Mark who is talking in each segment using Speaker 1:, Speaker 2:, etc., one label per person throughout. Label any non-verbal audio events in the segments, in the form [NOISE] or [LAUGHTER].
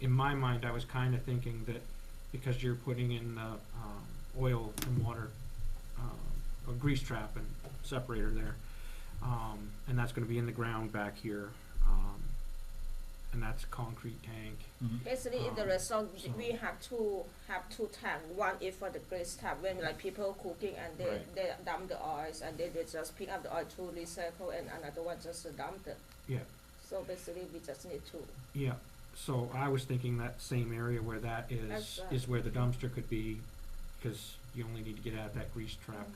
Speaker 1: in my mind, I was kind of thinking that because you're putting in the um, oil and water, uh, a grease trap and separator there, um, and that's going to be in the ground back here, um, and that's a concrete tank.
Speaker 2: Basically, in the
Speaker 1: Um,
Speaker 2: restaurant,
Speaker 1: so-
Speaker 2: we have two have two tank. One is for the grease tank when like people cooking and they,
Speaker 1: Right.
Speaker 2: they dump the oils and then they just pick up the oil to recycle and another one just to dump it.
Speaker 1: Yeah.
Speaker 2: So basically, we just need two.
Speaker 1: Yeah, so I was thinking that same area where that
Speaker 2: That's
Speaker 1: is,
Speaker 2: right.
Speaker 1: is where the dumpster could be, because you only need to get out of that grease trap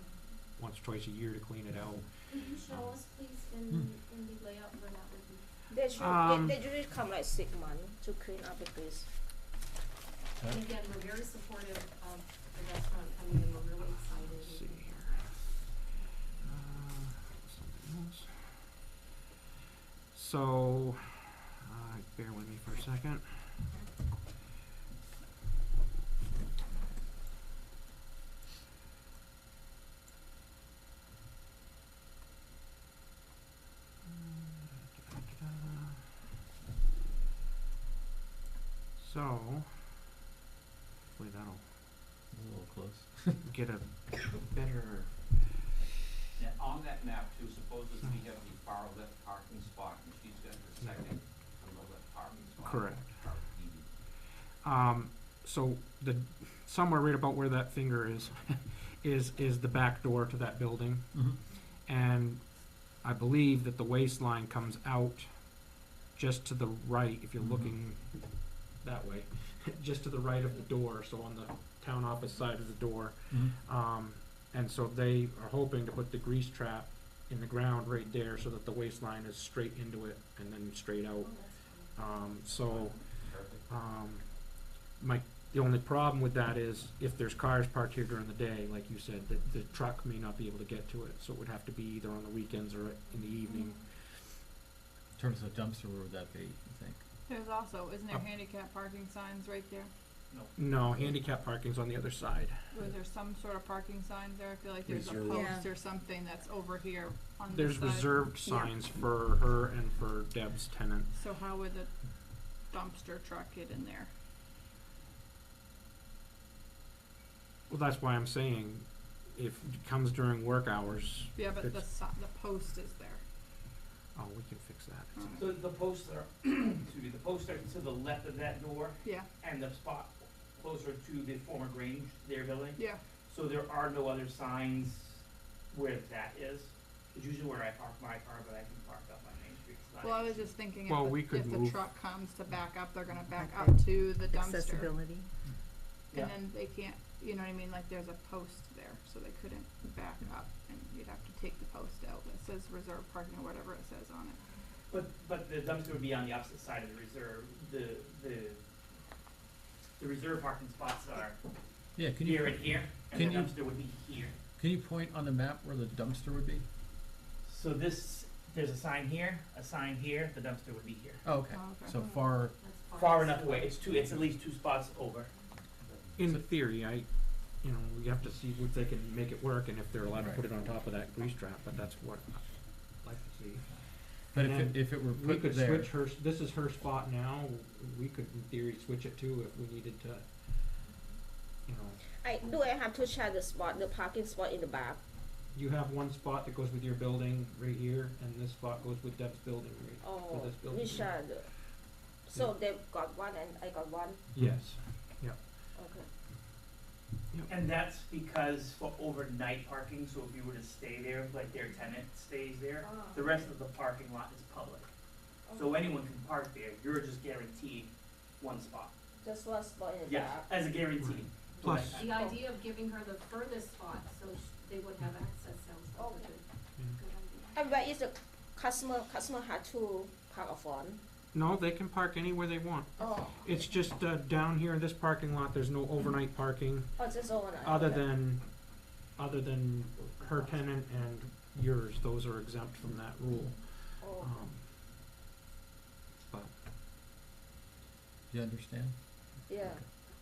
Speaker 1: once, twice a year to clean it out.
Speaker 3: Can you show us, please, in, in the layout where that would be?
Speaker 2: They should
Speaker 1: Um,
Speaker 2: they, they usually come like six months to clean up the grease.
Speaker 3: And again, we're very supportive of the restaurant coming in, we're really excited.
Speaker 1: Let's see here. Uh, something else. So, uh, bear with me for a second. So, hopefully that'll
Speaker 4: A little close.
Speaker 1: get a better.
Speaker 5: Now, on that map too, supposes we have the far left parking spot, and she's got the second from the left parking spot.
Speaker 1: Correct.
Speaker 5: Our PD.
Speaker 1: Um, so the somewhere right about where that finger is, [LAUGHS] is is the back door to that building,
Speaker 4: Mm-hmm.
Speaker 1: and I believe that the waistline comes out just to the right if you're
Speaker 4: Mhm.
Speaker 1: looking that way, [LAUGHS] just to the right of the door. So on the town office side of the door, um, and so they are hoping to put the grease trap in the ground right there so that the waistline is straight into it and then straight out.
Speaker 3: Oh, that's fine.
Speaker 1: Um, so.
Speaker 5: Perfect.
Speaker 1: Um, my, the only problem with that is if there's cars parked here during the day, like you said, that the truck may not be able to get to it, so it would have to be either on the weekends or in the evening.
Speaker 4: In terms of dumpster, where would that be, you think?
Speaker 6: There's also, isn't there
Speaker 1: Up.
Speaker 6: handicap parking signs right there?
Speaker 1: No, handicap parking's on the other side.
Speaker 6: Was there some sort of parking signs there? I feel like there's a
Speaker 4: Reserved.
Speaker 2: Yeah.
Speaker 6: post or something that's over here on the
Speaker 1: There's
Speaker 6: side.
Speaker 1: reserved signs for her and for Deb's tenant.
Speaker 6: So how would the dumpster truck get in there?
Speaker 1: Well, that's why I'm saying, if it comes during work hours,
Speaker 6: Yeah, but the
Speaker 1: It's-
Speaker 6: si- the post is there.
Speaker 1: oh, we can fix that.
Speaker 6: Mm.
Speaker 7: So the posts are, [CLEARS THROAT] excuse me, the posts are to the left of that door
Speaker 6: Yeah,
Speaker 7: and the spot closer to the former Grange, their building.
Speaker 6: yeah,
Speaker 7: So there are no other signs where that is. It's usually where I park my car, but I can park up my main street. It's not
Speaker 6: well, I
Speaker 7: an
Speaker 6: was
Speaker 7: issue.
Speaker 6: just thinking
Speaker 1: Well,
Speaker 6: if
Speaker 1: we
Speaker 6: the,
Speaker 1: could
Speaker 6: if the
Speaker 1: move-
Speaker 6: truck comes to back up, they're gonna back
Speaker 8: Back
Speaker 6: up to the dumpster.
Speaker 8: accessibility.
Speaker 7: Yeah.
Speaker 6: And then they can't, you know what I mean, like there's a post there, so they couldn't back up and you'd have to take the post out that says reserved parking or whatever it says on it.
Speaker 7: But, but the dumpster would be on the opposite side of the reserve, the, the, the reserve parking spots are
Speaker 4: Yeah, can
Speaker 7: here
Speaker 4: you,
Speaker 7: and here,
Speaker 4: can
Speaker 7: and the
Speaker 4: you-
Speaker 7: dumpster would be here.
Speaker 4: can you point on the map where the dumpster would be?
Speaker 7: So this, there's a sign here, a sign here, the dumpster would be here.
Speaker 4: Oh, okay,
Speaker 6: Oh, okay.
Speaker 4: so far,
Speaker 3: That's
Speaker 7: Far enough away, it's two, it's at least two spots over.
Speaker 1: In theory, I, you know, we have to see if they can make it work and if they're allowed to put it on top of that grease trap, but that's what I'd like to see.
Speaker 4: but if
Speaker 1: And
Speaker 4: it, if it were
Speaker 1: We
Speaker 4: put
Speaker 1: could
Speaker 4: there,
Speaker 1: switch her, this is her spot now, we could in theory switch it too if we needed to, you know.
Speaker 2: I do. I have to check the spot, the parking spot in the back.
Speaker 1: You have one spot that goes with your building right here, and this spot goes with Deb's building right,
Speaker 2: Oh,
Speaker 1: this building,
Speaker 2: we
Speaker 1: yeah.
Speaker 2: share. the- So they've got one and I got one.
Speaker 4: Hmm.
Speaker 1: yes.
Speaker 2: Okay.
Speaker 7: And that's because for overnight parking, so if you were to stay there, like their tenant stays there, the rest of the parking lot is public. So anyone can park there, you're just guaranteed one spot.
Speaker 2: Just one spot in the
Speaker 7: Yes,
Speaker 2: back.
Speaker 7: as a guarantee.
Speaker 1: Plus-
Speaker 7: Like,
Speaker 3: The idea of giving her the furthest spot, so sh- they would have access, sounds
Speaker 2: Oh,
Speaker 3: like a good,
Speaker 1: yeah.
Speaker 3: good idea.
Speaker 2: And where is the customer? Customer had to park a phone.
Speaker 1: No, they can park anywhere they want.
Speaker 2: Oh,
Speaker 1: It's just, uh, down here in this parking lot, there's no overnight parking,
Speaker 2: oh, just overnight.
Speaker 1: other
Speaker 2: okay.
Speaker 1: than, other than her tenant and yours, those are exempt from that rule.
Speaker 2: Oh.
Speaker 1: Um, But
Speaker 4: you understand?
Speaker 2: Yeah.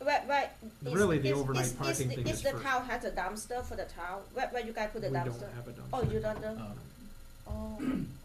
Speaker 2: Right, right. It's-
Speaker 1: Really, the
Speaker 2: it's-
Speaker 1: overnight
Speaker 2: it's- it's
Speaker 1: parking
Speaker 2: the-
Speaker 1: thing
Speaker 2: It's
Speaker 1: is
Speaker 2: the
Speaker 1: for-
Speaker 2: town has a dumpster for the town. Where, where you guys put
Speaker 1: we
Speaker 2: the
Speaker 1: don't
Speaker 2: dumpster?
Speaker 1: have a dumpster.
Speaker 2: Oh, you don't know?
Speaker 4: Um,
Speaker 2: Oh,